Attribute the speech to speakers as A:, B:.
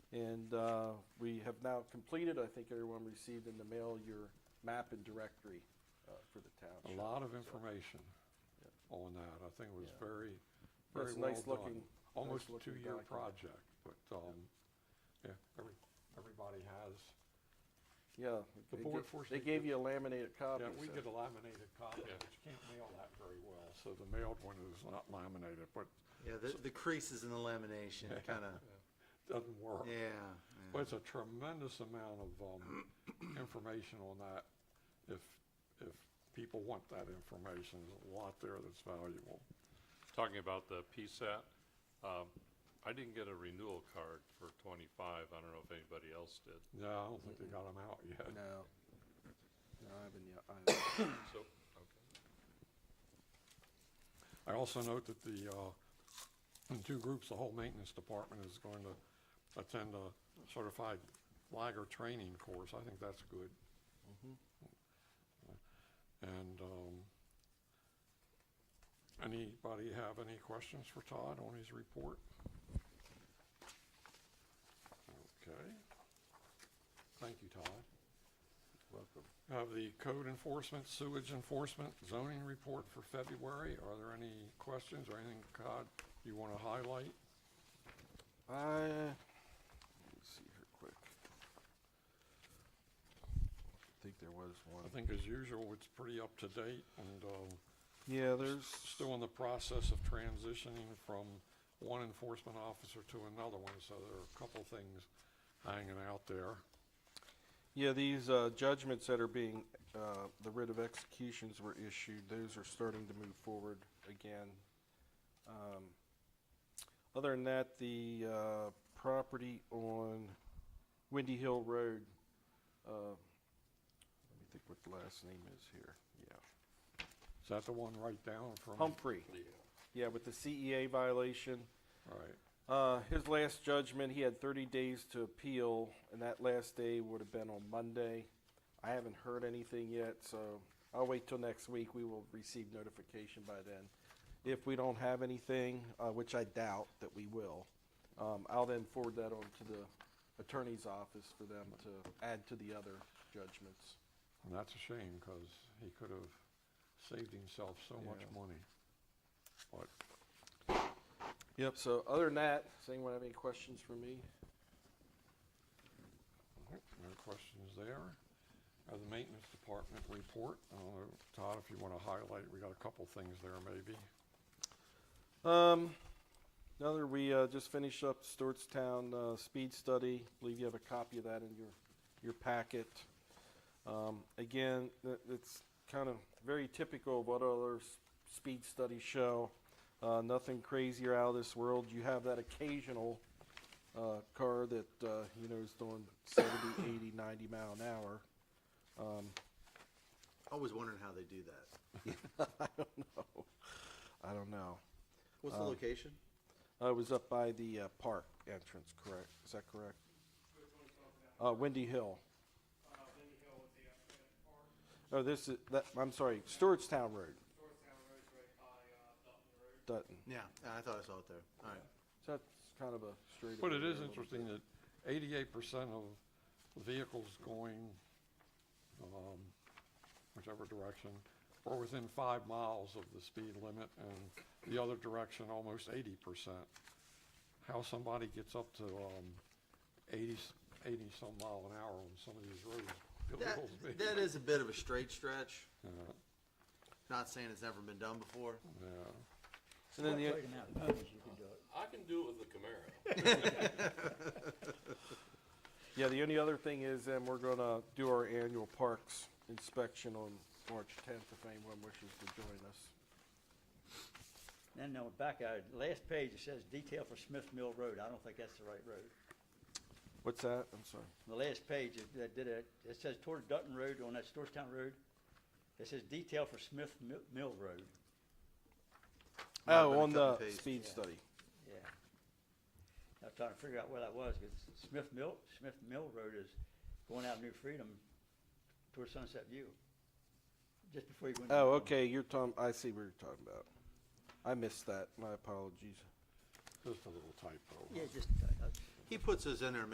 A: And uh, we have now completed, I think everyone received in the mail, your map and directory uh, for the township.
B: A lot of
A: So,
B: information
A: Yeah.
B: on that. I think it was
A: Yeah.
B: very,
A: It's
B: very
A: a
B: well
A: nice looking-
B: done.
A: nice
B: Almost a
A: looking
B: two-year
A: document.
B: project, but, um, yeah, every, everybody has.
A: Yeah.
B: The
A: they
B: board
A: ga-
B: forced
A: They
B: me
A: gave
B: to-
A: you a laminated copy.
B: Yeah, we
A: so-
B: get a laminated copy, but you can't mail that very well, so the mailed one is not laminated, but
C: Yeah, the, the creases in the lamination kind of,
B: doesn't work.
C: yeah.
B: But it's a tremendous amount of, um, information on that. If, if people want that information, there's a lot there that's valuable.
D: Talking about the PSAT, um, I didn't get a renewal card for 25. I don't know if anybody else did.
B: No, I don't think they got them out yet.
A: No. No, I haven't yet. I-
D: So, okay.
B: I also note that the, uh, in two groups, the whole maintenance department is going to attend a certified flagger training course. I think that's good. And um, anybody have any questions for Todd on his report? Okay. Thank you, Todd.
A: Welcome.
B: Have the code enforcement, sewage enforcement, zoning report for February. Are there any questions or anything, Todd, you want to highlight?
A: I,
B: Uh,
A: let me see here quick. I think there was one.
B: I think as usual, it's pretty up to date and um,
A: Yeah, there's.
B: still in the process of transitioning from one enforcement officer to another one, so there are a couple things hanging out there.
A: Yeah, these uh, judgments that are being, uh, the writ of executions were issued, those are starting to move forward again. Um, Other than that, the uh, property on Windy Hill Road, uh, let me think what the last name is here, yeah.
B: Is that the one right down from?
A: Humphrey, yeah, with the CEA violation.
B: Right.
A: Uh, his last judgment, he had 30 days to appeal, and that last day would have been on Monday. I haven't heard anything yet, so I'll wait till next week. We will receive notification by then. If we don't have anything, uh, which I doubt that we will, um, I'll then forward that on to the attorney's office for them to add to the other judgments.
B: And that's a shame because he could have saved himself so much
A: Yeah.
B: money. But
A: Yep. So other than that, does anyone have any questions for me?
B: Alright, No questions there. Uh, The maintenance department report, uh, Todd, if you want to highlight, we got a couple things there maybe.
A: Um, another, we uh, just finished up Stewartstown uh, speed study. Believe you have a copy of that in your your packet. Um, again, th- it's kind of very typical of what other s- speed studies show. Uh, nothing crazy or out of this world. You have that occasional uh, car that uh, you know is doing 70, 80, 90 mile an hour.
C: I was wondering how they do that.
A: I don't know.
C: What's the location?
A: Uh, it was up by the uh, park entrance, correct? Is that correct? Uh, Windy Hill.
E: Uh, Lindy Hill with the, uh, park,
A: Oh, this is, that, I'm sorry, Stewartstown Road,
E: Georgetown Road's right by, uh, Dalton Road.
A: Dutton.
C: Yeah, I thought I saw it there. All right.
A: So that's kind of a straight.
B: But it
A: away
B: is
A: a little bit.
B: interesting that eighty-eight percent of vehicles going, um, whichever direction, are within five miles of the speed limit and the other direction, almost eighty percent. How somebody gets up to, um, eighty, eighty-some mile an hour on some of these roads
C: That,
B: baffles me.
C: that is a bit of a straight stretch.
B: Yeah.
C: Not saying it's never been done before.
B: Yeah.
A: And then the,
F: I can do it with the Camaro.
A: yeah, the only other thing is, and we're gonna do our annual parks inspection on March tenth, if anyone wishes to join us.
G: Then on the back, uh, last page, it says detail for Smith Mill Road. I don't think that's the right road.
A: What's that? I'm sorry.
G: The last page, it it did a, it says toward Dutton Road on that Georgetown Road. It says detail for Smith Mi- Mill Road.
C: Might have
A: Oh,
C: been a
A: on
C: cut and
A: the
C: paste.
A: speed
G: Yeah.
A: study.
G: Yeah. I was trying to figure out where that was, because Smith Mill, Smith Mill Road is going out New Freedom toward Sunset View. Just before you go into.
A: Oh, okay, you're talking, I see what you're talking about. I missed that, my apologies.
B: Just a little typo.
G: Yeah, just, uh, uh,
C: He puts those in there